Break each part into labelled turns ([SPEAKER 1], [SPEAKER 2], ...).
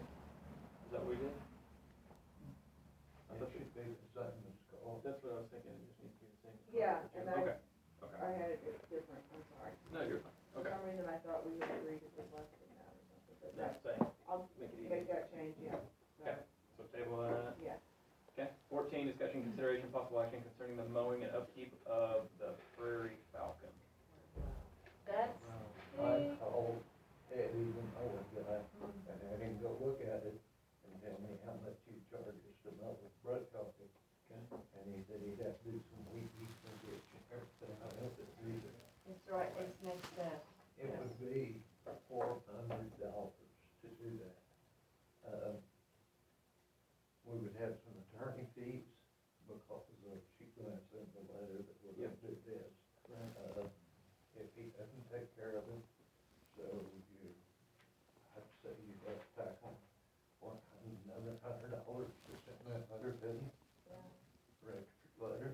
[SPEAKER 1] Oh, Um, Steve's because of, she couldn't send the letter that we're gonna do this. Uh, if he doesn't take care of it, so you, I'd say you got to tack on one, hun- another hundred dollars to send that letter to him, registered letter.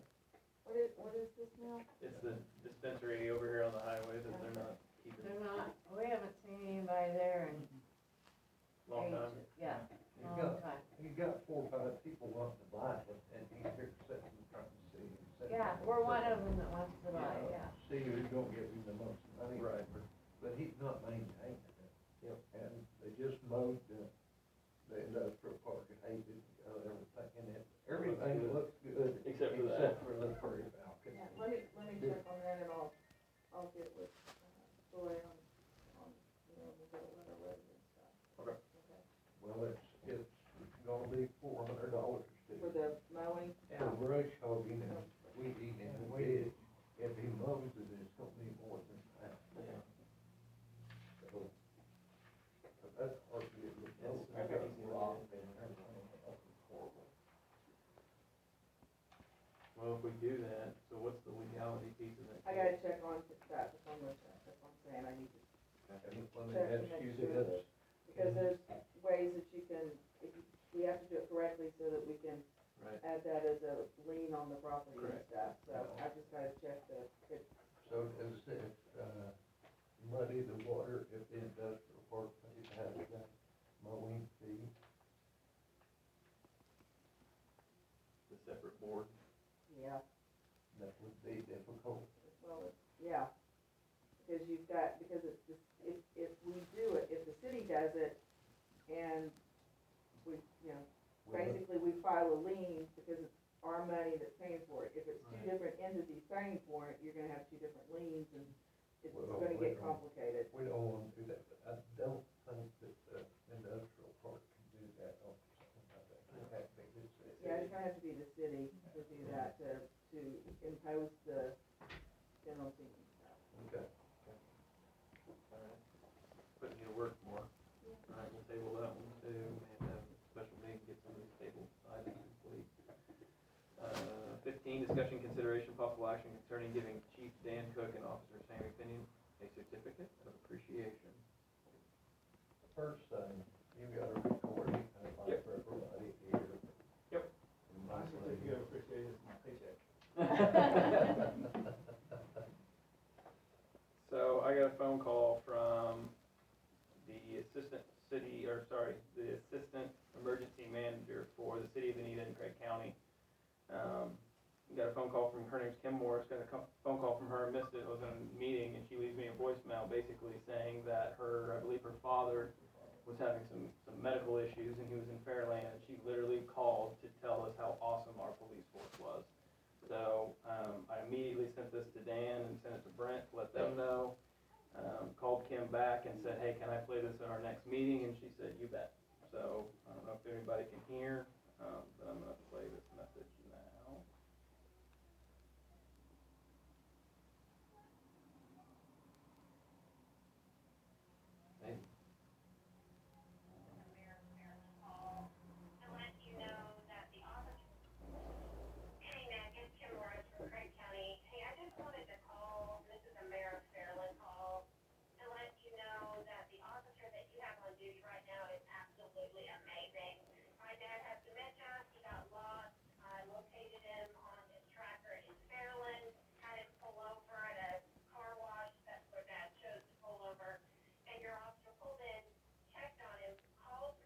[SPEAKER 2] What is, what is this now?
[SPEAKER 3] It's the dispensary over here on the highway that they're not keeping
[SPEAKER 4] They're not, we haven't seen anybody there in
[SPEAKER 3] long time.
[SPEAKER 4] ages, yeah,
[SPEAKER 1] You
[SPEAKER 4] long
[SPEAKER 1] got,
[SPEAKER 4] time.
[SPEAKER 1] you got four, or five people wanting to buy it, and he's here sitting trying to see. sitting
[SPEAKER 4] Yeah,
[SPEAKER 1] there.
[SPEAKER 4] we're one of them that wants to buy,
[SPEAKER 1] You know,
[SPEAKER 4] yeah.
[SPEAKER 1] See who's gonna give him the most money.
[SPEAKER 3] Right.
[SPEAKER 1] But he's not maintaining it.
[SPEAKER 3] Yep.
[SPEAKER 1] And they just mowed the, the industrial park and hated, uh, everything, and it, everything looks good.
[SPEAKER 3] Except for that.
[SPEAKER 1] Except for the prairie falcon.
[SPEAKER 2] Yeah, let me, let me check on that and I'll, I'll get with, uh, Joy on, on, you know, we'll get a letter ready and stuff.
[SPEAKER 3] Okay.
[SPEAKER 1] Well, it's, it's gonna be four hundred dollars to.
[SPEAKER 2] For the mowing?
[SPEAKER 1] For brush hogging and weeding and weed, if he mows it, it's gonna be more than that.
[SPEAKER 3] Yeah.
[SPEAKER 1] So, but that's hard to get. with those.
[SPEAKER 3] Oh, It's very easy to
[SPEAKER 1] Rock
[SPEAKER 3] do.
[SPEAKER 1] and everything else is horrible.
[SPEAKER 3] Well, if we do that, so what's the legality piece of that?
[SPEAKER 2] I gotta check on that, just one more time, that's what I'm saying, I need to,
[SPEAKER 1] And let me
[SPEAKER 2] Check to
[SPEAKER 1] ask
[SPEAKER 2] make
[SPEAKER 1] you
[SPEAKER 2] sure
[SPEAKER 1] this,
[SPEAKER 2] that- because
[SPEAKER 3] Mm-hmm.
[SPEAKER 2] there's ways that you can, if you, we have to do it correctly so that we can
[SPEAKER 3] Right,
[SPEAKER 2] add that as a lien on the property and
[SPEAKER 3] Correct.
[SPEAKER 2] stuff, so I just gotta check the, the-
[SPEAKER 1] so does it, uh, muddy the water if the industrial park pays half that mowing fee?
[SPEAKER 3] the separate board.
[SPEAKER 2] yeah,
[SPEAKER 1] That would be difficult.
[SPEAKER 2] Well, it's- yeah, because you've got, because it's, just- if, if we do it, if the city does it, and we, you know,
[SPEAKER 1] Well,
[SPEAKER 2] basically we file a lien because it's our money that's paying for it. If it's two
[SPEAKER 3] Right.
[SPEAKER 2] different entities paying for it, you're gonna have two different liens, and it's
[SPEAKER 1] Well,
[SPEAKER 2] gonna get
[SPEAKER 1] we don't-
[SPEAKER 2] complicated.
[SPEAKER 1] We don't wanna do that, but I don't think that the industrial park can do that on something like that. It'd have to be the city.
[SPEAKER 2] Yeah, it's gonna have to be the city to do that, to, to impose the penalty and stuff.
[SPEAKER 1] Okay.
[SPEAKER 3] All right. Putting you to work more. All right, we'll table that one too, and have a special meeting, get some of these table items complete. Uh, fifteen, discussion consideration possible action concerning giving Chief Dan Cook and Officer Sammy Finney a certificate of appreciation.
[SPEAKER 1] First thing, you got a recording, I'd like
[SPEAKER 3] Yep.
[SPEAKER 1] for everybody here.
[SPEAKER 3] Yep.
[SPEAKER 1] My
[SPEAKER 5] certificate of appreciation is my paycheck.
[SPEAKER 3] So I got a phone call from the assistant city, or sorry, the assistant emergency manager for the city of Anita in Craig County. Um, got a phone call from, her name's Kim Morris, got a co- phone call from her, missed it, was in a meeting, and she leaves me a voicemail basically saying that her, I believe her father was having some, some medical issues and he was in Fairland, and she literally called to tell us how awesome our police force was. So, um, I immediately sent this to Dan and sent it to Brent, to let them know. Um, called Kim back and said, hey, can I play this in our next meeting? And she said, you bet. So, I don't know if anybody can hear, um,